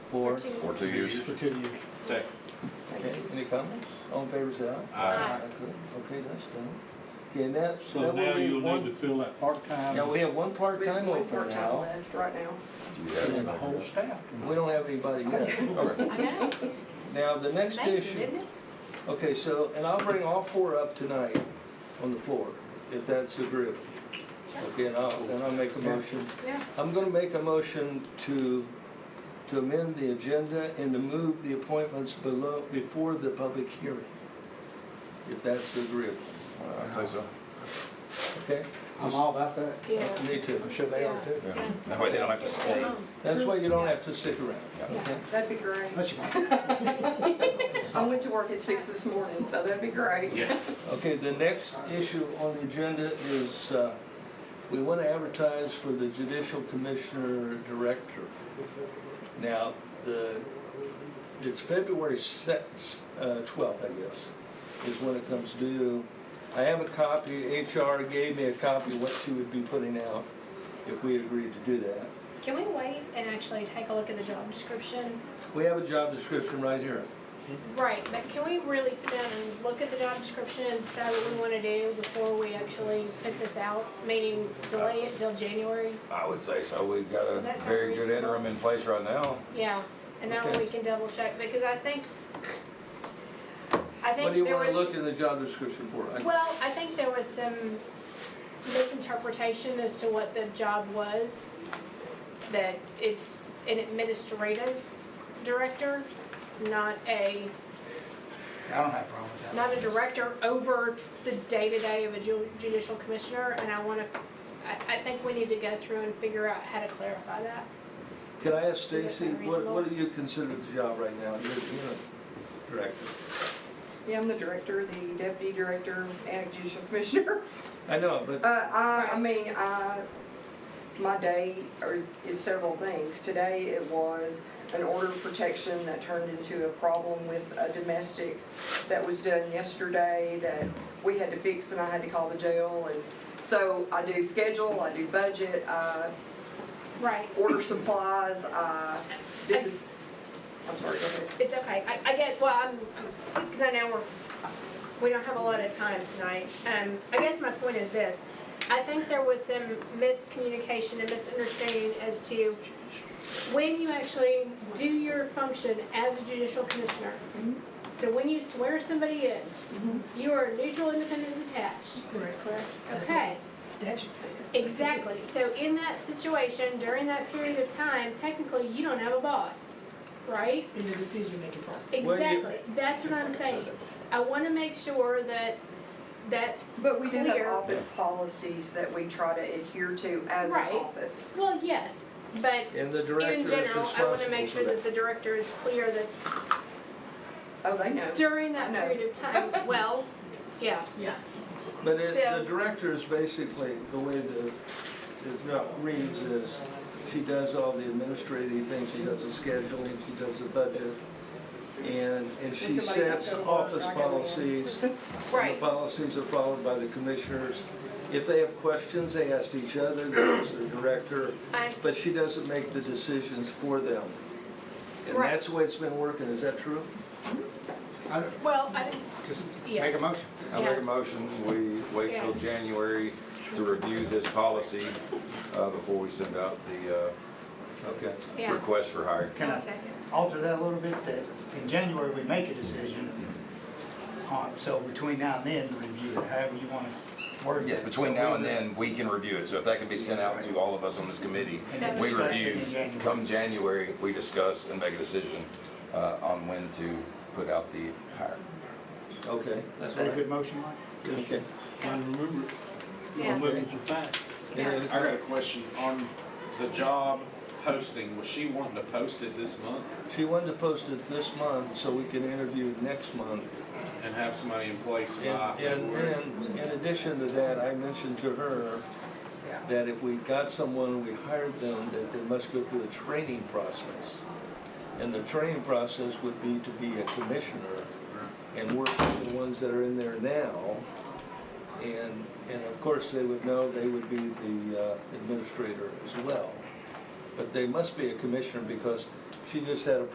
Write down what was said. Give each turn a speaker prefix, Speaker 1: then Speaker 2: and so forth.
Speaker 1: for?
Speaker 2: For two years.
Speaker 3: for two years.
Speaker 4: Second.
Speaker 1: Okay, any comments? All in favor, say aye.
Speaker 4: Aye.
Speaker 2: Uh,
Speaker 1: Aye, good. Okay, that's done. Okay, and that,
Speaker 5: So
Speaker 1: that
Speaker 5: now
Speaker 1: will be
Speaker 5: you'll need to
Speaker 1: one,
Speaker 5: fill that part-time
Speaker 1: now we have one
Speaker 6: We have
Speaker 1: part-time
Speaker 6: one
Speaker 1: open
Speaker 6: part-time
Speaker 1: now.
Speaker 6: left right now.
Speaker 2: You have
Speaker 5: and the
Speaker 2: it.
Speaker 5: whole staff.
Speaker 1: We don't have anybody yet.
Speaker 7: I know,
Speaker 1: Now, the next
Speaker 7: amazing,
Speaker 1: issue,
Speaker 7: isn't it?
Speaker 1: okay, so, and I'll bring all four up tonight on the floor, if that's agreeable. Okay, and I'll, and I'll make a motion.
Speaker 7: Yeah.
Speaker 1: I'm gonna make a motion to, to amend the agenda and to move the appointments below, before the public hearing, if that's agreeable,
Speaker 2: I'd say so.
Speaker 1: okay?
Speaker 3: I'm all about that.
Speaker 7: Yeah.
Speaker 1: Me too.
Speaker 3: I'm sure they are too.
Speaker 2: Yeah. That way they don't have to stay.
Speaker 7: Um,
Speaker 1: That's why you don't have to stick around, okay?
Speaker 6: That'd be great.
Speaker 3: That's your mind.
Speaker 6: I went to work at six this morning, so that'd be great.
Speaker 4: Yeah.
Speaker 1: Okay, the next issue on the agenda is, uh, we want to advertise for the judicial commissioner director. Now, the, it's February sixth, uh, twelfth, I guess, is when it comes due. I have a copy, HR gave me a copy of what she would be putting out if we agreed to do that.
Speaker 7: Can we wait and actually take a look at the job description?
Speaker 1: We have a job description right here.
Speaker 7: Right, but can we really sit down and look at the job description and decide what we want to do before we actually put this out? Meaning delay it till January?
Speaker 2: I would say so. We've got a
Speaker 7: Does that sound
Speaker 2: very good
Speaker 7: reasonable?
Speaker 2: interim in place right now.
Speaker 7: Yeah, and that way
Speaker 1: Okay.
Speaker 7: we can double check, because I think, I
Speaker 1: What
Speaker 7: think
Speaker 1: do you
Speaker 7: there
Speaker 1: want to look
Speaker 7: was,
Speaker 1: in the job description for? I-
Speaker 7: well, I think there was some misinterpretation as to what the job was. That it's an administrative director, not a
Speaker 3: I don't have a problem with that.
Speaker 7: not a director over the day-to-day of a ju- judicial commissioner, and I wanna, I, I think we need to go through and figure out how to clarify that.
Speaker 1: Can I ask
Speaker 7: that
Speaker 1: Stacy,
Speaker 7: sound
Speaker 1: what,
Speaker 7: reasonable?
Speaker 1: what do you consider the job right now? You're, you're a director.
Speaker 6: Yeah, I'm the director, the deputy director, and judicial commissioner.
Speaker 1: I know, but,
Speaker 6: Uh, I, I mean, I, my day is, is several things. Today it was an order of protection that turned into a problem with a domestic that was done yesterday that we had to fix and I had to call the jail and so I do schedule, I do budget, I
Speaker 7: Right,
Speaker 6: order supplies, I did this, I'm sorry, go ahead.
Speaker 7: it's okay, I, I get, well, I'm, I'm- cause I know we're, we don't have a lot of time tonight. Um, I guess my point is this, I think there was some miscommunication and misunderstanding as to when you actually do your function as a judicial commissioner. So when you swear somebody in, you are neutral, independent, and detached.
Speaker 6: That's correct.
Speaker 7: Okay,
Speaker 6: Statute says.
Speaker 7: exactly. So in that situation, during that period of time, technically, you don't have a boss, right?
Speaker 8: in the decision-making process.
Speaker 1: Well, you-
Speaker 7: Exactly. That's what I'm saying. I want to make sure that, that,
Speaker 6: But we do have
Speaker 7: Clear.
Speaker 6: office policies that we try to adhere to as an
Speaker 7: Right.
Speaker 6: office.
Speaker 7: well, yes, but
Speaker 1: and the director
Speaker 7: in
Speaker 1: is
Speaker 7: general, I want to
Speaker 1: responsible
Speaker 7: make
Speaker 1: for
Speaker 7: sure that the director is clear that
Speaker 6: Oh, they know.
Speaker 7: during that
Speaker 6: I know.
Speaker 7: period of time, well, yeah,
Speaker 8: Yeah.
Speaker 1: But it, the
Speaker 7: So-
Speaker 1: director is basically, the way the, it not reads is, she does all the administrative things, she does the scheduling, she does the budget, and, and she
Speaker 6: Did somebody
Speaker 1: sets
Speaker 6: go to work?
Speaker 1: office
Speaker 6: I gotta go.
Speaker 1: policies. and
Speaker 7: right.
Speaker 1: The policies are followed by the commissioners. If they have questions, they ask each other, they ask the director,
Speaker 7: I,
Speaker 1: but she doesn't make the decisions for them. And
Speaker 7: Right.
Speaker 1: that's the way it's been working, is that true?
Speaker 3: I,
Speaker 7: well, I,
Speaker 3: just
Speaker 7: Yeah.
Speaker 3: make a motion.
Speaker 2: I make
Speaker 7: Yeah.
Speaker 2: a motion, we wait till
Speaker 7: Yeah.
Speaker 2: January to review this policy uh, before we send out the
Speaker 1: Okay.
Speaker 2: uh,
Speaker 7: yeah,
Speaker 2: request for hire.
Speaker 3: Can
Speaker 7: I'll
Speaker 3: I
Speaker 7: second.
Speaker 3: alter that a little bit, that in January we make a decision on, so between now and then, review it, however you want to word it.
Speaker 2: Yes, between
Speaker 3: So
Speaker 2: now
Speaker 3: we
Speaker 2: and
Speaker 3: re-
Speaker 2: then, we can review it, so if that can be sent out to all of us on this committee,
Speaker 3: And then
Speaker 2: we
Speaker 3: discuss it
Speaker 2: review,
Speaker 3: in January.
Speaker 2: come January, we discuss and make a decision uh, on when to put out the hire.
Speaker 1: Okay, that's
Speaker 3: Is that a
Speaker 1: right.
Speaker 3: good motion, Mike?
Speaker 1: Okay.
Speaker 5: And remember,
Speaker 7: Yeah.
Speaker 5: I'm moving to fact.
Speaker 1: Any other
Speaker 7: Yeah.
Speaker 4: I got a question on the job posting. Was she wanting to post it this month
Speaker 1: She wanted to post it this month so we can interview next month.
Speaker 4: and have somebody in place
Speaker 1: And,
Speaker 4: by
Speaker 1: and,
Speaker 4: February?
Speaker 1: and in addition to that, I mentioned to her that if we got someone, we hired them, that they must go through a training process. And the training process would be to be a commissioner and work with the ones that are in there now. And, and of course, they would know they would be the uh, administrator as well. But they must be a commissioner because She just had a